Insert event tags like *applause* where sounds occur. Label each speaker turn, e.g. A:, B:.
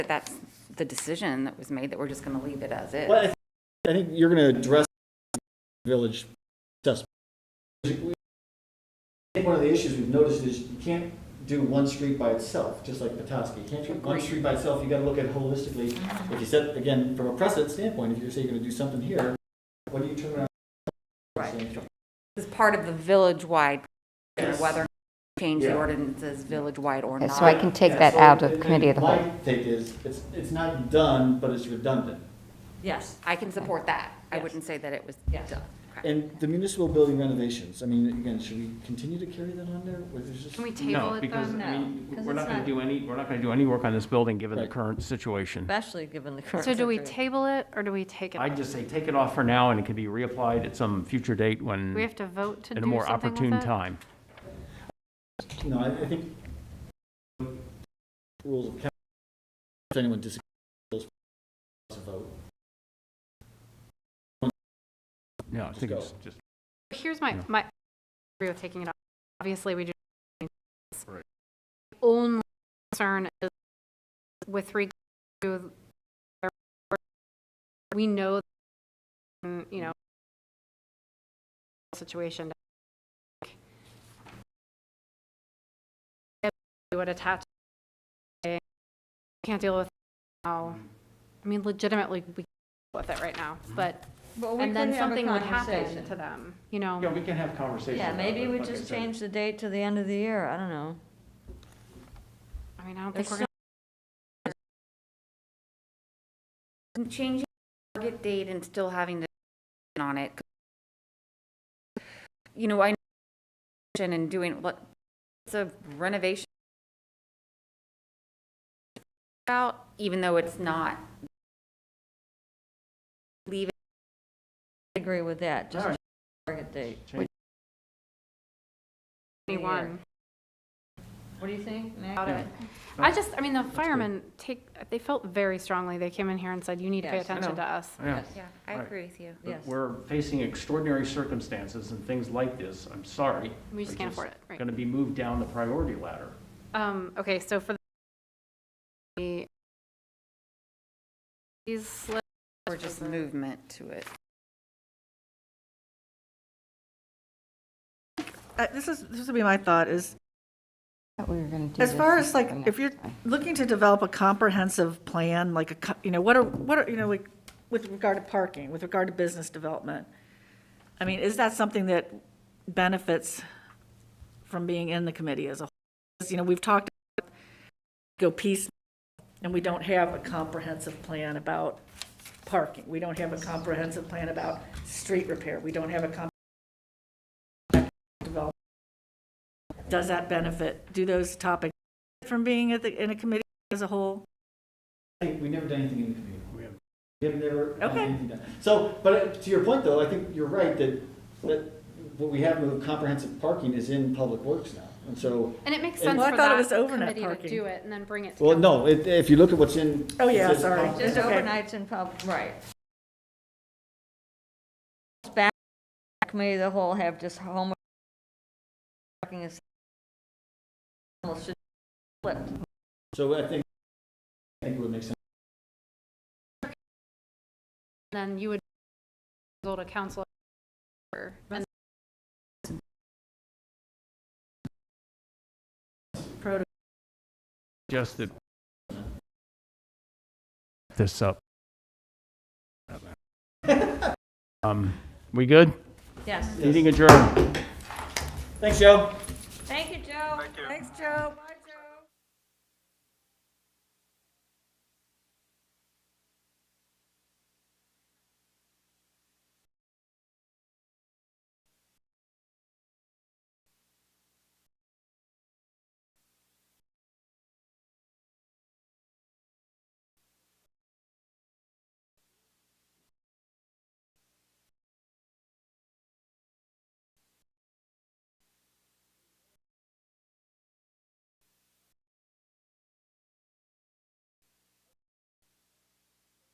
A: But that's the decision that was made, that we're just going to leave it as is.
B: Well, I think- I think you're going to address village assessment. I think one of the issues we've noticed is you can't do one street by itself, just like Petoskey. You can't do one street by itself, you got to look at it holistically. If you said, again, from a precedent standpoint, if you say you're going to do something here, what do you turn around?
A: Right. It's part of the village-wide, whether change the
B: Yeah.
A: ordinances village-wide or
C: Okay,
A: not.
C: so I can take that
B: So,
C: out of
B: and-
C: committee of the
B: and
C: whole.
B: My take is, it's, it's not done, but it's redundant.
D: Yes,
A: I can support that. I
D: Yes.
A: wouldn't say that it was
D: Yes.
A: done. Okay.
B: And the municipal building renovations, I mean, again, should we continue to carry that on there? Or is it just-
A: Can we table
E: No,
A: it
E: because, I
A: though?
E: mean,
D: because
E: we're not
D: it's
E: going
D: not-
E: to do any, we're not going to do any work on this building, given the
B: Right.
E: current situation.
D: especially given the current.
F: So do we
D: situation.
F: table it or do we take it?
E: I'd
F: off?
E: just say, take it off for now, and it can be reapplied at some future date when,
F: Do we have to vote to do
E: at a more
F: something with
E: opportune
F: it?
E: time.
B: No, I, I think rules of council, if anyone disagrees, those to vote.
E: No, I think it's just,
F: Here's my,
E: Yeah.
F: my, I agree with taking it off. Obviously, we do.
E: Right.
F: The Only concern is with regard to, their- we know, mm, you know, situation. We Would attach, can't deal with now.
E: Mm-hmm.
F: I mean, legitimately, we can't deal with it right now, but and then something would happen to them, you
E: yeah,
F: know?
E: we can have conversations.
D: Yeah,
E: about
D: maybe
E: it,
D: we
E: like I
D: just
E: said.
D: change the date to the end of the year, I don't know.
F: I mean, I don't
D: There's
F: think we're
D: so
F: gonna,
A: Changing the target date and still having the on it. You know, I, and doing, what it's a renovation out, even though it's not leave it
D: I Agree with that, just
E: All right.
D: target date.
E: Change-
F: anyone
D: What do you think, Mac?
F: about it.
E: No.
F: I just, I mean, the firemen take, they felt very strongly. They came in here and said, you need to pay
D: Yes, I
F: attention to
E: know.
F: us.
E: Yeah.
A: Yeah, I
E: Right.
A: agree with you.
E: But
D: Yes.
E: We're facing extraordinary circumstances and things like this, I'm sorry.
F: We just can't afford it, right.
E: Going to be moved down the priority ladder.
F: Um, okay, so for the these slips,
A: Or just movement to it.
G: Uh, This is, this would be my thought, is
C: Thought we were gonna do
G: as
C: this
G: far as
C: the
G: like, if
C: next
G: you're
C: time.
G: looking to develop a comprehensive plan, like a, co- you know, what are, what are, you know, like, with regard to parking, with regard to business development, I mean, is that something that benefits from being in the committee as a whole? 'Cause, You know, we've talked, about go piece, and we don't have a comprehensive plan about parking. We don't have a comprehensive plan about street repair. We don't have a comprehensive development. Does that benefit, do those topics from being at the, in a committee as a whole?
B: I think we never done anything in the community. We have. never done
G: Okay.
B: anything done. So, but uh, to your point though, I think you're right that, that what we have with comprehensive parking is in public works now. And so,
F: and it makes
B: And-
F: sense
B: Well,
G: I
F: for
G: thought it
F: that
G: was overnight
F: committee to
G: parking.
F: do it and then bring it to
B: well,
F: council.
B: no, if, if you look at what's in.
G: Oh, yeah,
B: it says
G: sorry.
B: comp-
D: Just
G: Okay.
D: overnights in pub, right. Back, committee, the whole have just home. Parking is. Almost should flip.
B: So I think, I think it would make sense.
F: Then you would go to council. or- and
E: Just that. This up. *laughs* Um, we good?
D: Yes.
E: Meeting adjourned.
B: Thanks, Joe.
D: Thank you, Joe. Thank you. Thanks, Joe. Bye,